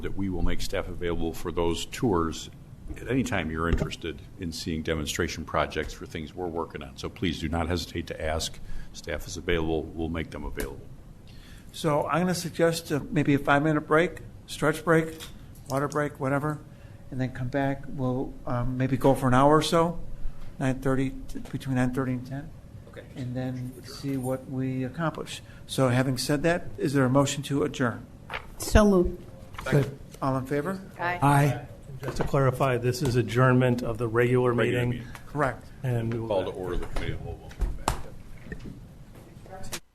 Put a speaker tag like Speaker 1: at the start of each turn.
Speaker 1: that we will make staff available for those tours at any time you're interested in seeing demonstration projects for things we're working on. So please do not hesitate to ask. Staff is available. We'll make them available.
Speaker 2: So I'm going to suggest uh, maybe a five-minute break, stretch break, water break, whatever, and then come back. We'll um, maybe go for an hour or so, 9:30, t- between 9:30 and 10,
Speaker 3: Okay.
Speaker 2: and then see what we accomplish. So having said that, is there a motion to adjourn?
Speaker 4: So moved.
Speaker 2: All in favor?
Speaker 5: Aye.
Speaker 6: Just to clarify, this is adjournment of the regular
Speaker 1: Regular
Speaker 6: meeting,
Speaker 1: meeting.
Speaker 2: Correct.
Speaker 6: and we
Speaker 1: Call to
Speaker 6: will
Speaker 1: order the committee of the whole.